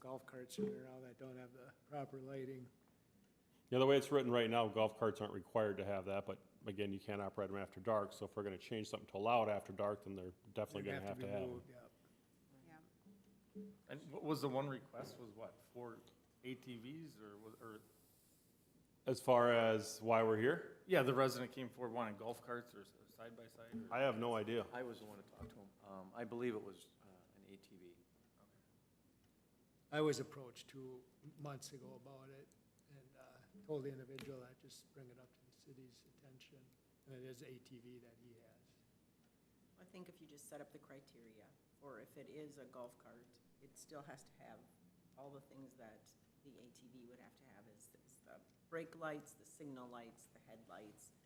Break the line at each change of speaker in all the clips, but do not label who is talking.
golf carts sitting around that don't have the proper lighting.
Yeah, the way it's written right now, golf carts aren't required to have that, but again, you can't operate them after dark, so if we're gonna change something to allow it after dark, then they're definitely
They
gonna have
be
to have them.
moved, yeah.
And what was the one request, was what, four ATVs or, was- or,
As far as why we're here,
yeah, the resident came forward wanting golf carts or side by side or?
I have no idea.
I was the one to talk to him. Um, I believe it was, uh, an ATV.
I was approached two months ago about it and uh, told the individual that just bring it up to the city's attention. And it is ATV that he has.
I think if you just set up the criteria, or if it is a golf cart, it still has to have all the things that the ATV would have to have is, is the brake lights, the signal lights, the headlights.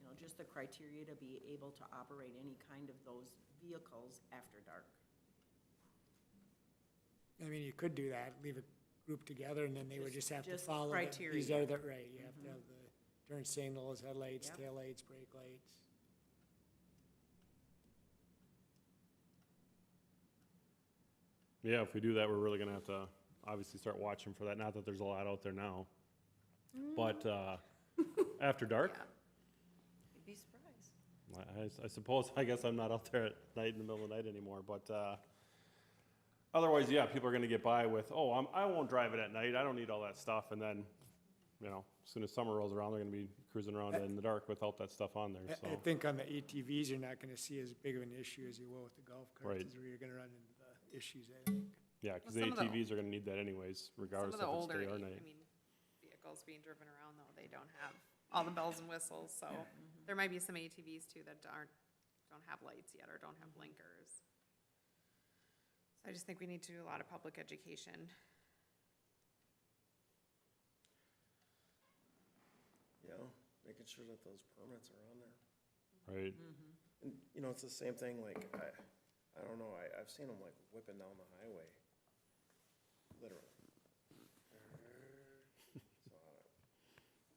You know, just the criteria to be able to operate any kind of those vehicles after dark.
I mean, you could do that, leave a group together and then they would just
Just-
have to
just
follow. the- These
criteria. Mm-hmm.
are the, right, you have to have the turn signals, headlights,
Yep.
taillights, brake lights.
Yeah, if we do that, we're really gonna have to obviously start watching for that, not that there's a lot out there now. But, uh, after dark,
Mm. You'd be surprised.
I- I, s- I suppose, I guess I'm not out there at night in the middle of the night anymore, but, uh, otherwise, yeah, people are gonna get by with, oh, I'm, I won't drive it at night, I don't need all that stuff, and then, you know, as soon as summer rolls around, they're gonna be cruising around in the dark without that stuff on there,
I, I
so.
think on the ATVs, you're not gonna see as big of an issue as you will with the golf
Right.
carts, is where you're gonna run into the issues, I think.
Yeah, cause
Well, some of the-
ATVs are gonna need that anyways,
Some
regardless
of
if
the
it's oh
older,
day
I
or night.
mean, vehicles being driven around though, they don't have all the bells and whistles, so there might be some ATVs too that aren't, don't have lights yet or don't have blinkers. So I just think we need to do a lot of public education.
Yeah, making sure that those permits are on there.
Right,
And, you know, it's the same thing, like, I, I don't know, I, I've seen them like whipping down the highway, literally. So, I don't-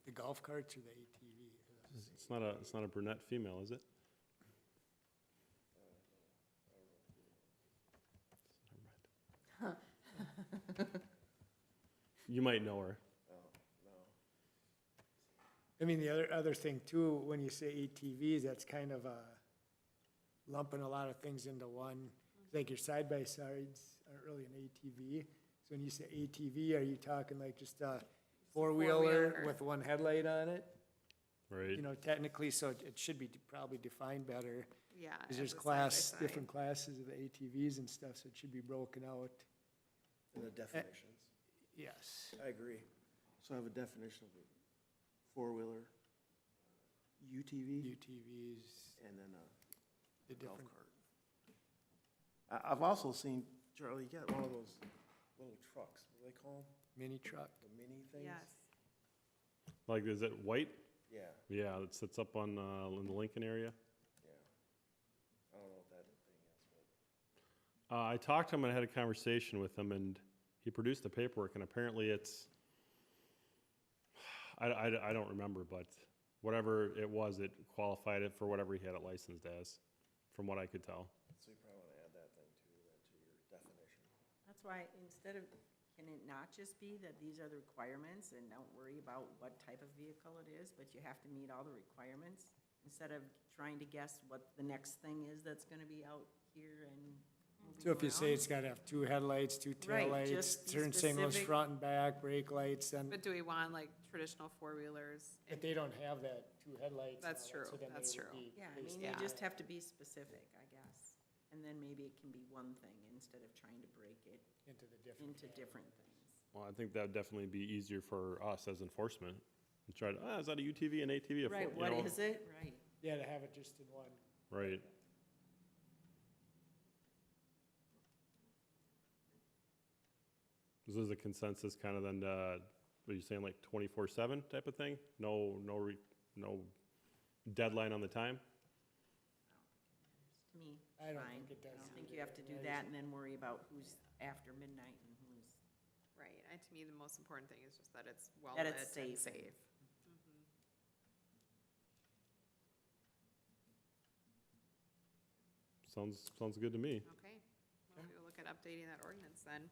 The golf carts or the ATV?
it's not a, it's not a brunette female, is it? Never mind. You might know her.
I mean, the other, other thing too, when you say ATVs, that's kind of uh lumping a lot of things into one. Like your side-by-sides aren't really an ATV. So when you say ATV, are you talking like just a four-wheeler
four-wheeler.
with one headlight on it?
Right.
You know, technically, so it it should be de- probably defined better.
Yeah.
Because
as
there's
a
class,
Uh, side-by-side.
different classes of ATVs and stuff, so it should be broken out.
And the definitions,
Yes.
I agree. So I have a definition of a four-wheeler, uh, UTV,
UTVs,
and then uh, a
the
golf
different,
cart. I, I've also seen, Charlie, you got one of those little trucks, what do they call them,
mini truck.
the mini things?
Yes,
Like, is it white?
Yeah,
Yeah, it sits up on, uh, in the Lincoln area.
yeah. I don't know what that thing is, but.
Uh, I talked to him and had a conversation with him, and he produced the paperwork, and apparently it's, I, I, I don't remember, but whatever it was, it qualified it for whatever he had it licensed as, from what I could tell.
So you probably want to add that thing to, then to your definition.
That's why instead of, can it not just be that these are the requirements and don't worry about what type of vehicle it is, but you have to meet all the requirements? Instead of trying to guess what the next thing is that's gonna be out here and moving
So if you say
around.
it's gotta have two headlights, two
Right,
taillights,
just be
turn signals
specific.
front and back, brake lights, and,
but do we want like traditional four-wheelers?
but they don't have that, two headlights. and
That's
all that, so
true,
then they
that's
would
true.
be
Yeah, I
based
mean, you
Yeah.
just have to be specific, I guess. And then maybe it can be one thing instead of trying to break it
Into the different.
into different things.
Well, I think that'd definitely be easier for us as enforcement. And try to, ah, is that a UTV, an ATV? a four-"
Right,
you
what
know?
is it? Right.
Yeah, to have it just in one.
Right. This is a consensus kind of then, uh, what are you saying, like twenty-four seven type of thing? No, no, re- no deadline on the time?
To me,
I don't
fine.
think it
I
does.
don't think
either.
you have to do
is-
that and then worry about who's after midnight and who's,
Right, and to me, the most important thing is just that it's well
That
lit
it's
and
safe.
safe.
Sounds, sounds good to me.
Okay, we'll look at updating that ordinance then.